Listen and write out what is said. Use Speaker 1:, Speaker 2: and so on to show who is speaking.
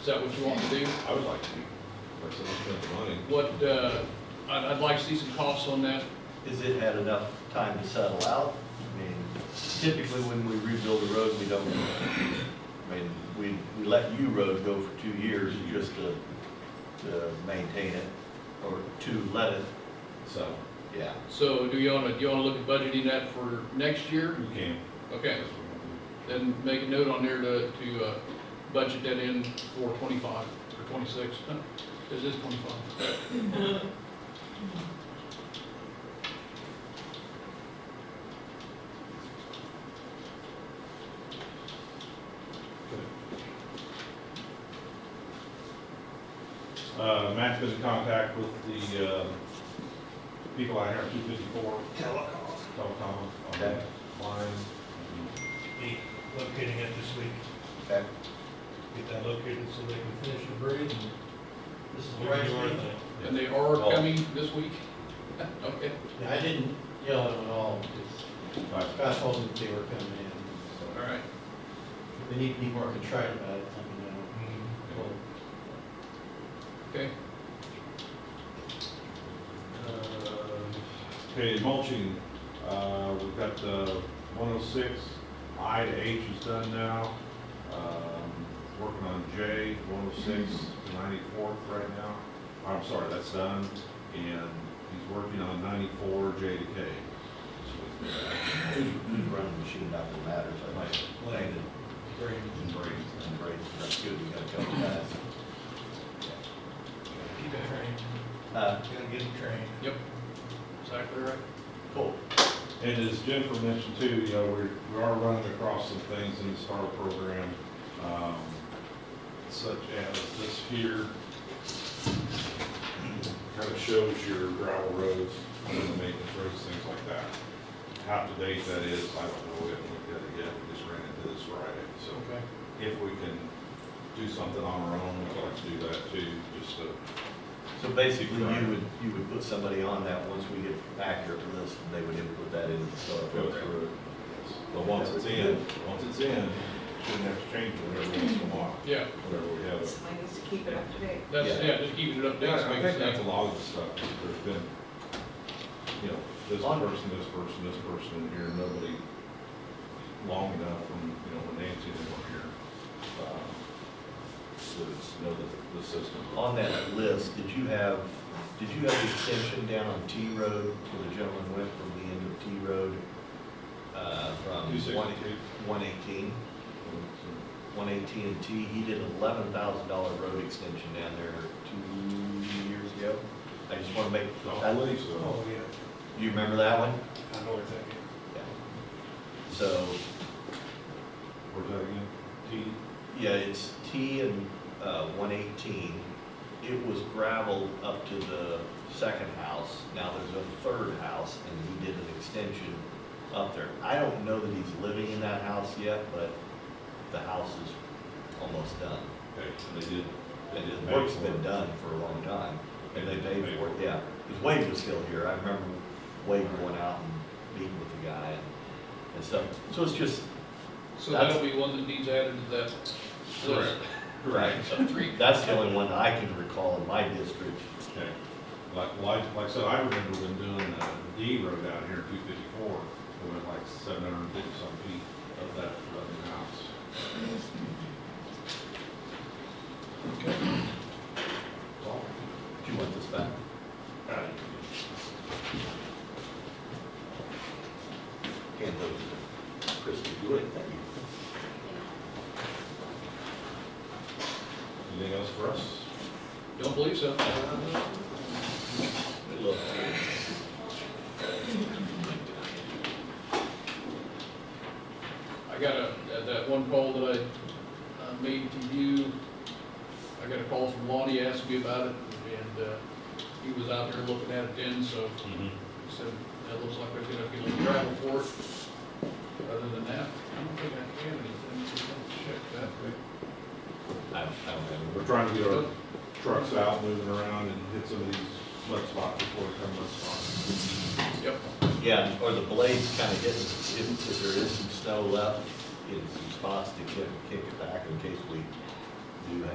Speaker 1: Is that what you want to do?
Speaker 2: I would like to, personally spend the money.
Speaker 1: What, uh, I'd, I'd like to see some costs on that.
Speaker 3: Is it had enough time to settle out? I mean, typically when we rebuild a road, we don't, I mean, we, we let U road go for two years just to, to maintain it, or to let it,
Speaker 2: So,
Speaker 3: yeah.
Speaker 1: So do you wanna, do you wanna look at budgeting that for next year?
Speaker 2: you can.
Speaker 1: Okay, then make a note on there to, to, uh, budget that in for twenty-five or twenty-six. Huh, This is twenty-five.
Speaker 4: Uh, Matt's been in contact with the, uh, people out here at two fifty-four,
Speaker 5: Telecom.
Speaker 4: telecom, on
Speaker 3: Okay.
Speaker 4: that line.
Speaker 5: Be locating it this week,
Speaker 3: Okay.
Speaker 5: get that located so they can finish the bridge and.
Speaker 6: This is
Speaker 5: we
Speaker 6: where
Speaker 5: can do our
Speaker 6: I,
Speaker 5: thing.
Speaker 1: And they are
Speaker 3: Oh.
Speaker 1: coming this week? Okay,
Speaker 6: I didn't yell at them at all, because
Speaker 4: Right.
Speaker 6: I told them they were coming in.
Speaker 1: all right.
Speaker 6: If They need to be more contrite about it, let me know.
Speaker 5: Mhm.
Speaker 6: Well,
Speaker 1: Okay,
Speaker 4: Okay, mulching, uh, we've got the one oh six, I to H is done now. Um, working on J, 106 one oh six, ninety-four right now. I'm sorry, that's done, and he's working on ninety-four, J to K.
Speaker 3: Who's, who's running the machine, not that matters, I think. Landon
Speaker 5: Great.
Speaker 3: and Brady, and Brady, that's good, we got a couple guys.
Speaker 5: Keep it trained,
Speaker 3: Uh,
Speaker 5: gotta get it trained.
Speaker 1: yep, exactly right.
Speaker 3: cool.
Speaker 4: And as Jennifer mentioned too, you know, we're, we are running across some things in the STAR program, um, such as this here. Kind of shows your gravel roads, you know, maintenance roads, things like that. How to date that is, I don't know, we haven't looked at it yet, we just ran into this Friday, so
Speaker 1: Okay.
Speaker 4: if we can do something on our own, we'd like to do that too, just to
Speaker 3: So basically, you would, you would put somebody on that, once we get accurate list, they would input that into the STAR
Speaker 4: go
Speaker 3: program.
Speaker 4: through it. But once it's in, once it's in, shouldn't have to change it every once in a while.
Speaker 1: Yeah,
Speaker 4: whatever we have.
Speaker 7: Somebody needs to keep it up to date.
Speaker 1: that's,
Speaker 3: Yeah.
Speaker 1: yeah, just keeping it up to date.
Speaker 4: I think that's a
Speaker 1: Exactly.
Speaker 4: lot of the stuff, there's been, you know, this person, this person, this person here, nobody long enough from, you know, when Nancy and them were here, um, to know the, the system.
Speaker 3: On that list, did you have, did you have the extension down on T Road where the gentleman went from the end of T Road? Uh, from one,
Speaker 4: 262.
Speaker 3: one eighteen, one eighteen and T, he did an eleven thousand dollar road extension down there two years ago. I just wanna make,
Speaker 4: I believe so.
Speaker 5: Oh, yeah,
Speaker 3: you remember that one?
Speaker 5: I know exactly.
Speaker 3: Yeah. So,
Speaker 4: Where's that again? T?
Speaker 3: yeah, it's T and, uh, one eighteen. It was gravel up to the second house, now there's a third house, and he did an extension up there. I don't know that he's living in that house yet, but the house is almost done.
Speaker 4: Okay, and they did.
Speaker 3: And his
Speaker 4: Paid
Speaker 3: work's
Speaker 4: for
Speaker 3: been
Speaker 4: it.
Speaker 3: done for a long time, and they paid
Speaker 4: Paid
Speaker 3: for it,
Speaker 4: for it.
Speaker 3: yeah. Because Wade was still here, I remember Wade going out and meeting with the guy and, and stuff. So it's just,
Speaker 1: So that'll be one that needs added to that list.
Speaker 3: right,
Speaker 1: So three,
Speaker 3: That's the only one that I can recall in my district.
Speaker 4: Okay. Like, like, like I said, I remember them doing uh, the D road out here, two fifty-four, it went like seven hundred and fifty some feet of that flooding house.
Speaker 1: okay.
Speaker 3: Do you want this back? Hand those to Christie Good, thank you.
Speaker 4: Anything else for us?
Speaker 1: Don't believe so.
Speaker 3: Good luck.
Speaker 1: I got a, that- that one call that I uh, made to you, I got a call from Lonnie, asked me about it, and uh, he was out there looking at it then, so he said, that looks like they're gonna get a little gravel for it. Other than that, I don't think I can, anything, so I'll check
Speaker 3: I, I don't
Speaker 4: We're trying to get our trucks out, moving around and hit some of these mud spots before they come mud spots.
Speaker 1: that. Yep,
Speaker 3: know. Yeah, or the blade's kind of hitting, if, if there is some snow left in some spots to kick, kick it back in case we do have